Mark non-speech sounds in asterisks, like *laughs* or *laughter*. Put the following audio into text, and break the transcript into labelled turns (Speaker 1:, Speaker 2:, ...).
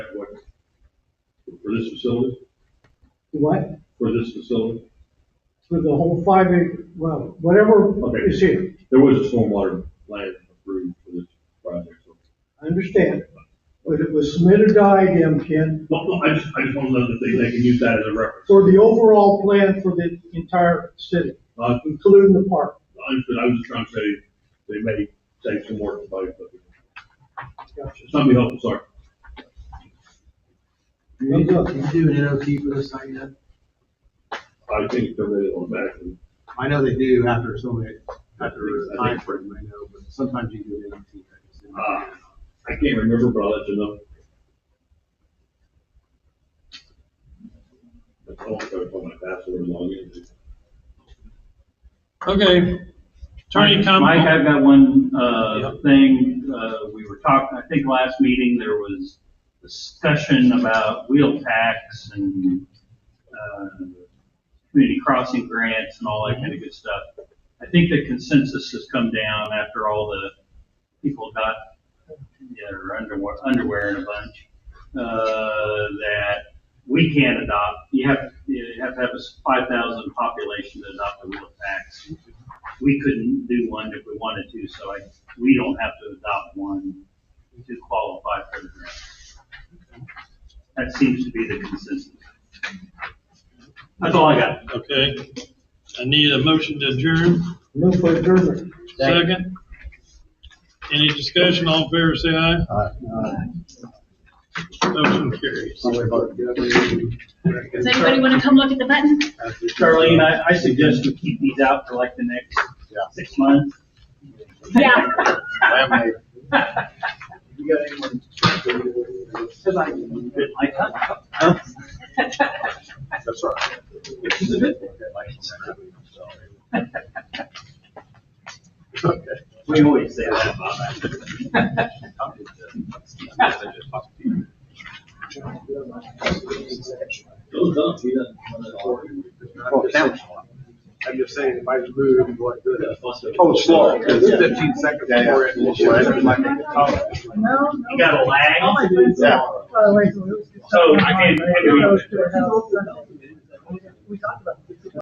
Speaker 1: what, for this facility,
Speaker 2: What?
Speaker 1: for this facility?
Speaker 2: For the whole five acre, well, whatever
Speaker 1: Okay.
Speaker 2: is here,
Speaker 1: There was a stormwater plan approved for this project, so.
Speaker 2: I understand. But it was submitted to IDM, Ken,
Speaker 1: Well, well, I just, I just want to know that they, they can use that as a reference.
Speaker 2: for the overall plan for the entire city,
Speaker 1: Uh,
Speaker 2: including the park.
Speaker 1: I understood, I was just trying to say, they may take some work, but but
Speaker 2: Gotcha.
Speaker 1: somebody help, sorry.
Speaker 2: You need to-
Speaker 3: do an NOT for this thing yet?
Speaker 1: I think they're really on back, and
Speaker 3: I know they do after so many, after
Speaker 1: After,
Speaker 3: a
Speaker 1: I
Speaker 3: time
Speaker 1: think-
Speaker 3: frame, I know, but sometimes you do an NOT. I just didn't-
Speaker 1: Ah. I can't remember, but I'll let you know. That's all, I'm going to put my password and login.
Speaker 4: Okay. Attorney
Speaker 5: Mike,
Speaker 4: comment?
Speaker 5: I've got one, uh,
Speaker 4: Yep.
Speaker 5: thing, uh, we were talking, I think last meeting, there was discussion about wheel tax and, uh, community crossing grants and all that kind of good stuff. I think the consensus has come down after all the people got their underwear, underwear in a bunch, uh, that we can't adopt, you have, you have to have a five thousand population to adopt a wheel tax we couldn't do one if we wanted to, so I, we don't have to adopt one to qualify for the grant. That seems to be the consensus. That's all I got.
Speaker 4: Okay. I need a motion to adjourn.
Speaker 2: Move for adjournment.
Speaker 4: Second. Any discussion? All in favor, say aye. Motion carries.
Speaker 3: Somebody about to get up
Speaker 6: Does anybody want to come look at the button?
Speaker 3: there.
Speaker 5: Charlene, I, I suggest we keep these out for like the next
Speaker 3: Yeah.
Speaker 5: six months.
Speaker 6: Yeah.
Speaker 3: I.
Speaker 5: You got anyone? Cause I, like, huh?
Speaker 3: That's all right.
Speaker 5: Which is a good thing.
Speaker 3: Okay.
Speaker 5: We always say that about that. *laughs*
Speaker 3: Well, that was one. I'm just saying, if I was moving, what good? Oh, it's slow, because it's fifteen seconds before it.
Speaker 7: No,
Speaker 5: You got a lag.
Speaker 3: Yeah.
Speaker 7: no.
Speaker 5: So I can't, I can't-
Speaker 7: We talked about